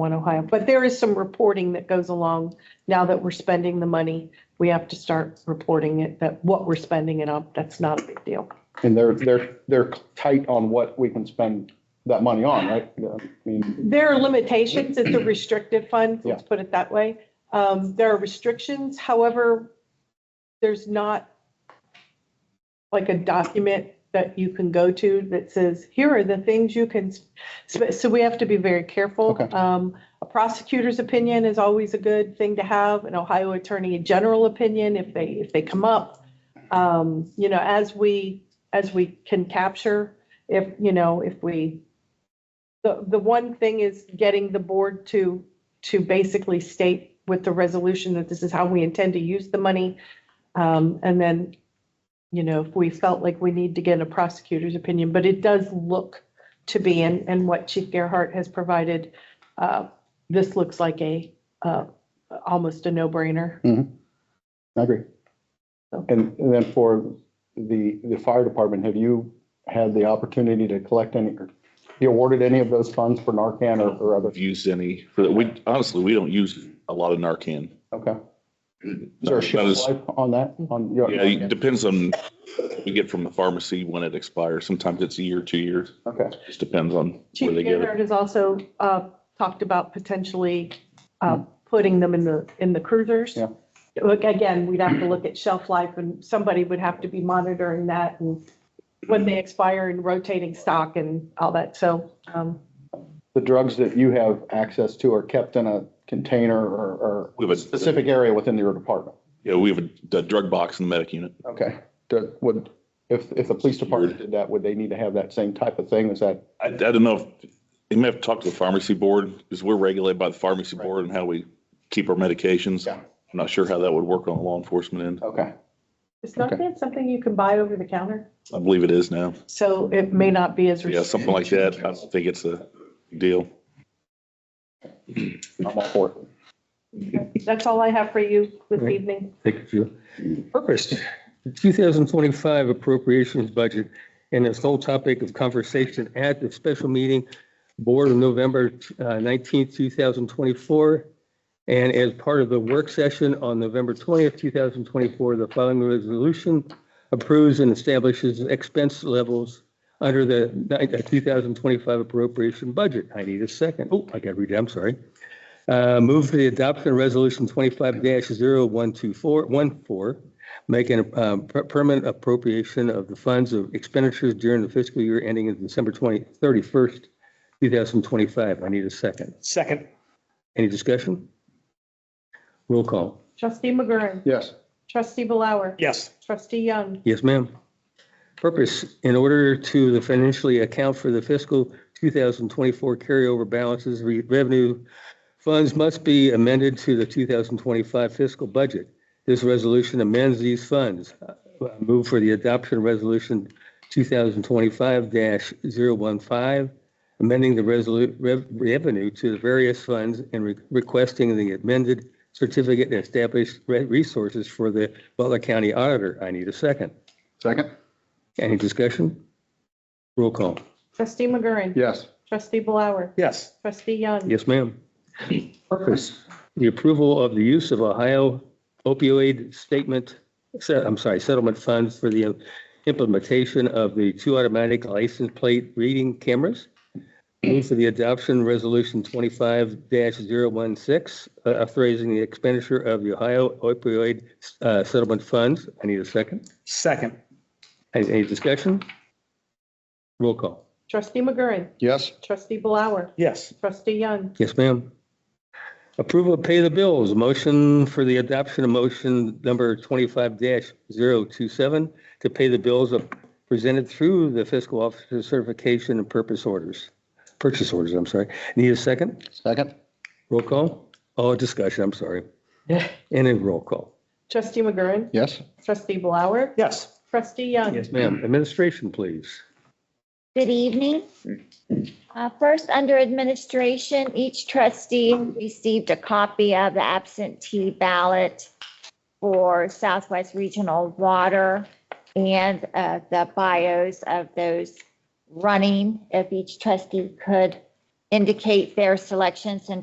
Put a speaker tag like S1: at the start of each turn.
S1: One Ohio, but there is some reporting that goes along. Now that we're spending the money, we have to start reporting it, that what we're spending it on. That's not a big deal.
S2: And they're, they're, they're tight on what we can spend that money on, right? Yeah, I mean,
S1: There are limitations. It's a restricted fund, let's
S2: Yeah.
S1: put it that way. Um, there are restrictions, however, there's not like a document that you can go to that says, here are the things you can, sp-" so we have to be very careful.
S2: Okay.
S1: Um, a prosecutor's opinion is always a good thing to have, an Ohio attorney general opinion if they, if they come up. Um, you know, as we, as we can capture, if, you know, if we, the, the one thing is getting the board to, to basically state with the resolution that this is how we intend to use the money. Um, and then, you know, if we felt like we need to get a prosecutor's opinion, but it does look to be, and, and what Chief Gerhart has provided, uh, this looks like a, uh, almost a no-brainer.
S2: I agree. And and then for the, the fire department, have you had the opportunity to collect any, or you awarded any of those funds for Narcan or, or other?
S3: I've used any for that. We honestly, we don't use a lot of Narcan.
S2: Okay. Is there a
S3: Not
S2: shelf
S3: as-
S2: life on that? On your-
S3: Yeah, it depends on what we get from the pharmacy when it expires. Sometimes it's a year, two years.
S2: Okay,
S3: Just depends on where
S1: Chief
S3: they get it.
S1: Gerhart has also, uh, talked about potentially, uh,
S3: Hmm.
S1: putting them in the, in the cruisers.
S2: Yeah.
S1: Look, again, we'd have to look at shelf life and somebody would have to be monitoring that and when they expire and rotating stock and all that. So, um,
S2: the drugs that you have access to are kept in a container or,
S3: We
S2: or
S3: have a-
S2: specific area within your department?
S3: Yeah, we have a d- drug box in the medic unit.
S2: Okay, Do- would, if, if the police department did that, would they need to have that same type of thing? Is that,
S3: I, I don't know if, you may have to talk to the pharmacy board because we're regulated by the pharmacy
S2: Right.
S3: board and how we keep our medications.
S2: Yeah.
S3: I'm not sure how that would work on the law enforcement end.
S2: okay,
S1: Is not
S2: Okay.
S1: that something you can buy over the counter?
S3: I believe it is now.
S1: So it may not be as.
S3: Yeah, something like that. I don't think it's a deal.
S2: I'm all for it.
S1: restrictive. That's all I have for you this
S4: Right.
S1: evening.
S4: Thank you, Julie. Purpose, the 2025 appropriations budget and its whole topic of conversation at the special meeting board of November uh, 19th, 2024. And as part of the work session on November 20th, 2024, the following resolution approves and establishes expense levels under the ni- uh, 2025 appropriation budget. I need a second. Oh, I got to read it. I'm sorry. Uh, Move for the adoption of Resolution 25-0124, 14, making a um, per- permanent appropriation of the funds of expenditures during the fiscal year ending in December 20, 31st, 2025. I need a second.
S5: Second,
S4: Any discussion? Roll call.
S1: Trustee McGurran.
S2: Yes.
S1: Trustee Blower.
S5: yes,
S1: Trustee Young.
S4: Yes, ma'am. Purpose, in order to financially account for the fiscal 2024 carryover balances, re- revenue funds must be amended to the 2025 fiscal budget. This resolution amends these funds. Uh, Move for the adoption of Resolution 2025-015, amending the resolu- rev- revenue to the various funds and re- requesting the amended certificate and established re- resources for the Butler County Auditor. I need a second.
S2: Second?
S4: Any discussion? Roll call.
S1: Trustee McGurran.
S2: Yes.
S1: Trustee Blower.
S5: yes,
S1: Trustee Young.
S4: Yes, ma'am. Purpose, the approval of the use of Ohio opioid statement, se- I'm sorry, settlement funds for the implementation of the two automatic license plate reading cameras. Move for the adoption resolution twenty-five 16 uh, authorizing the expenditure of the Ohio opioid uh, settlement funds. I need a second.
S5: second,
S4: Any any discussion? Roll call.
S1: Trustee McGurran.
S2: Yes.
S1: Trustee Blower.
S5: yes,
S1: Trustee Young.
S4: Yes, ma'am. Approval of pay the bills, motion for the adoption of motion number twenty-five 27 to pay the bills of- presented through the fiscal officer certification and purpose orders, purchase orders, I'm sorry. Need a second?
S2: Second?
S4: Roll call? Oh, discussion, I'm sorry. And a roll call.
S1: Trustee McGurran.
S2: Yes.
S1: Trustee Blower.
S5: yes,
S1: Trustee Young.
S4: Yes, ma'am. Administration, please.
S6: Good evening. Uh, First, under administration, each trustee received a copy of the absentee ballot for Southwest Regional Water and uh, the bios of those running. If each trustee could indicate their selections and